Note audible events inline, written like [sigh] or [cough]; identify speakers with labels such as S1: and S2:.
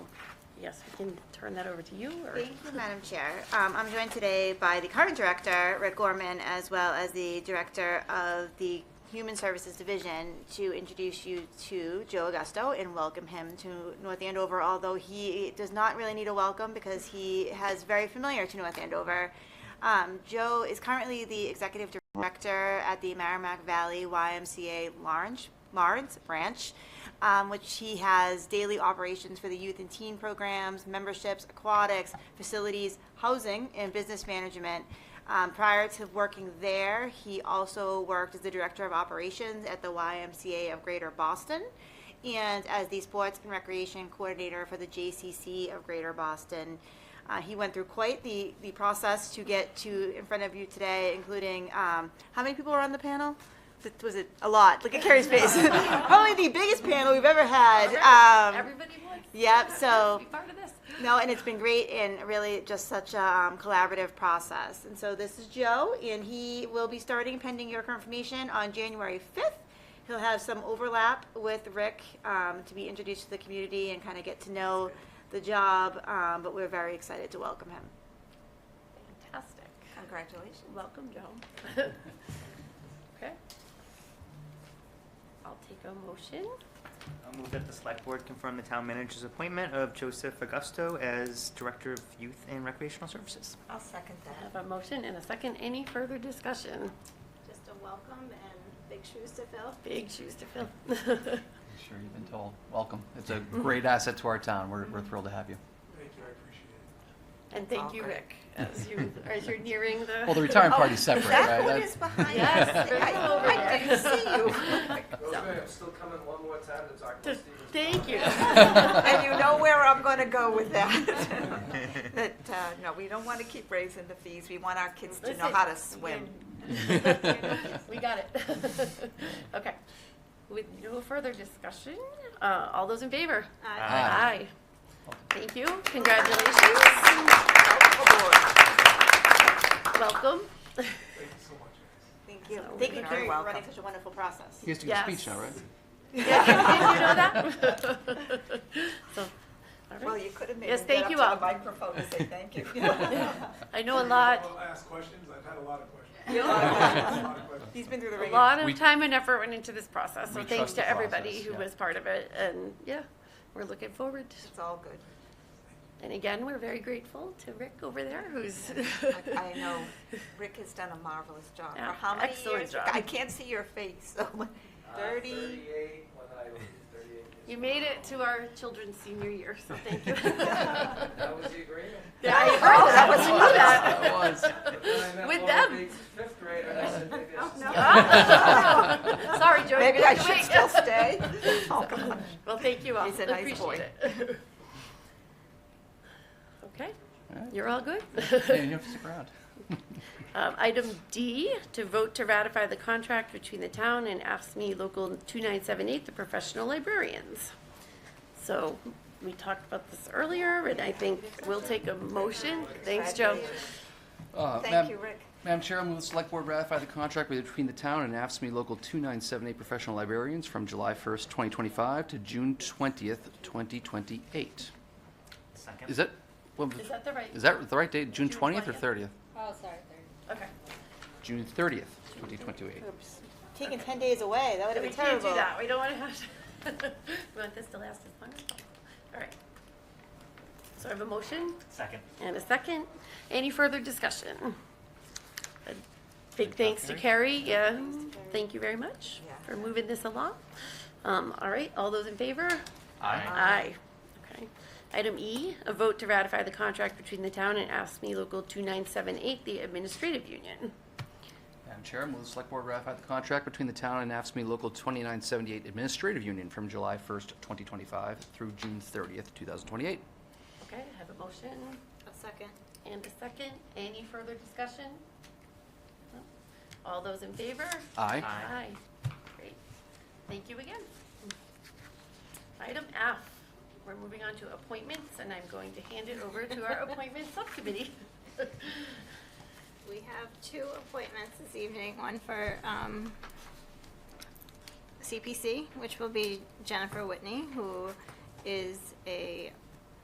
S1: yes, we can turn that over to you, or?
S2: Thank you, Madam Chair. Um, I'm joined today by the current director, Rick Gorman, as well as the director of the Human Services Division to introduce you to Joe Augusto and welcome him to North Andover, although he does not really need a welcome because he has very familiar to North Andover. Um, Joe is currently the executive director at the Merrimack Valley YMCA Lawrence, Lawrence Branch, um, which he has daily operations for the youth and teen programs, memberships, aquatics, facilities, housing, and business management. Um, prior to working there, he also worked as the director of operations at the YMCA of Greater Boston and as the sports and recreation coordinator for the JCC of Greater Boston. Uh, he went through quite the, the process to get to in front of you today, including um, how many people were on the panel? Was it- Was it a lot? Look at Carrie's face. [laughs] Probably the biggest panel we've ever had. Um,
S3: Everybody wants.
S2: yep, so-
S3: Be part of this.
S2: no, and it's been great and really just such a um, collaborative process. And so this is Joe, and he will be starting pending your confirmation on January 5th. He'll have some overlap with Rick um, to be introduced to the community and kind of get to know the job, um, but we're very excited to welcome him.
S3: Fantastic.
S4: Congratulations.
S3: Welcome, Joe. [laughs] Okay. I'll take a motion.
S5: I'll move that the select board confirm the town manager's appointment of Joseph Augusto as Director of Youth and Recreational Services.
S4: I'll second
S3: I
S4: that.
S3: have a motion and a second. Any further discussion?
S6: Just a welcome and big shoes to fill.
S3: Big shoes to fill. [laughs]
S7: I'm Sure, you've been told. Welcome. It's a great asset to our town. We're, we're thrilled to have you.
S8: Thank you, I appreciate it.
S3: And thank you, Rick, as you, as you're nearing the. Oh,
S7: Well, the
S3: [laughs]
S7: retirement party's separate, right?
S4: Oh, That one
S7: That's-
S4: is
S7: [laughs]
S4: behind
S3: Yes,
S4: us.
S3: bring
S4: I-
S3: them over
S4: I
S3: there.
S4: didn't see
S7: [laughs]
S4: you.
S8: Rosemary, I'm still coming one more time to talk to
S3: Just-
S8: Steve.
S3: Thank you.
S4: [laughs] [laughs] And you know where I'm going to go
S8: [laughs]
S4: with [laughs] that. That, uh, no, we don't want to keep raising the fees. We want our kids to know how to swim.
S3: We got
S4: [laughs]
S3: it. Okay. With no further discussion, uh, all those in favor?
S7: Aye.
S3: Aye. Thank you. Congratulations.
S4: [laughs]
S3: Welcome.
S8: Thank you so much, guys.
S2: Thank you.
S3: So
S2: Thank
S4: we
S2: you
S4: are
S2: Carrie, for running
S4: welcome.
S2: such a wonderful process.
S7: He has to give a speech now,
S4: [laughs]
S3: Yes.
S7: right?
S3: [laughs] Did you know that? [laughs] So, all right.
S4: [laughs] Well, you could have made
S3: Yes,
S4: him
S3: thank
S4: get up to
S3: you
S4: the
S3: all.
S4: microphone and say thank you.
S3: [laughs]
S4: [laughs]
S3: I know a
S8: I'll
S3: lot,
S8: ask questions, I've had a lot of
S3: [laughs]
S8: questions. A
S3: a
S8: lot of questions.
S2: He's been through the ringer.
S3: lot
S7: We-
S3: of time and effort went into this process, so
S7: We
S3: thanks
S7: trust the
S3: to everybody
S7: process,
S3: who
S7: yeah.
S3: was part of it, and yeah, we're looking forward.
S4: It's all good.
S3: And again, we're very grateful to Rick over there, who's.
S4: I- I
S3: [laughs]
S4: know Rick has done a marvelous job. For
S3: Yeah,
S4: how many
S3: excellent
S4: years?
S3: job.
S4: I can't see your face, so. [laughs]
S8: Uh,
S4: 30.
S8: Thirty-eight, when I was thirty-eight. years
S3: You
S8: old.
S3: made it to our children's senior year, so thank
S4: [laughs]
S3: you.
S8: That was the agreement.
S3: [laughs] Yeah, I heard
S4: Oh, that was
S3: I knew
S7: That was.
S8: But then I
S3: [laughs]
S8: met
S3: With
S8: Laura
S3: them.
S8: Biggs,
S3: [laughs]
S8: Fifth grader, and I said, maybe I should
S6: no.
S2: [laughs]
S8: stop.
S3: Ah. Oh, [laughs] Sorry, Joe.
S4: Oh, Maybe I should
S3: Wait. [laughs]
S4: still stay. Oh, gosh.
S3: Well, thank you all.
S4: He's a nice
S3: Appreciate
S4: boy.
S3: it. [laughs] Okay,
S7: All right.
S3: you're all good?
S7: Yeah, you have to stick around.
S3: Um, Item D, to vote to ratify the contract between the town and AFSMI E Local 2978, the professional librarians. So we talked about this earlier, and I think we'll take a motion. Thanks, Joe.
S7: Uh,
S4: Thank
S7: Madam-
S4: you, Rick.
S7: Madam Chair, I move the select board ratify the contract between the town and AFSCME Local 2978 Professional Librarians from July 1st, 2025 to June 20th, 2028. Is
S5: Second.
S7: that, what was-
S3: Is that the right?
S7: is that the right date?
S3: June
S7: June 20th or
S3: 20th.
S7: 30th?
S6: Oh, sorry, third.
S3: Okay.
S7: June 30th, 2028.
S2: Oops. Taking 10 days away, that would have
S3: We
S2: been
S3: can't
S2: terrible.
S3: do that. We don't want to [laughs] have to. We want this to last as long as possible. All right. So I have a motion
S5: Second.
S3: and a second. Any further discussion? A Big thanks to Carrie. Yeah. Thank you very much
S4: Yeah.
S3: for moving this along. Um, All right, all those in favor?
S7: Aye.
S3: Aye. Okay. Item E, a vote to ratify the contract between the town and ASME E Local 2978, the administrative union.
S7: Madam Chair, I move the Select Board ratify the contract between the town and AFSCME Local 2978 Administrative Union from July 1st, 2025 through June 30th, 2028.
S3: Okay, I have a motion.
S2: A second.
S3: And a second, any further discussion? No? All those in favor?
S7: Aye.
S3: Aye. Great. Thank you again. Item F, we're moving on to appointments, and I'm going to hand it over to our appointment subcommittee. [laughs]
S6: We have two appointments this evening, one for um, CPC, which will be Jennifer Whitney, who is a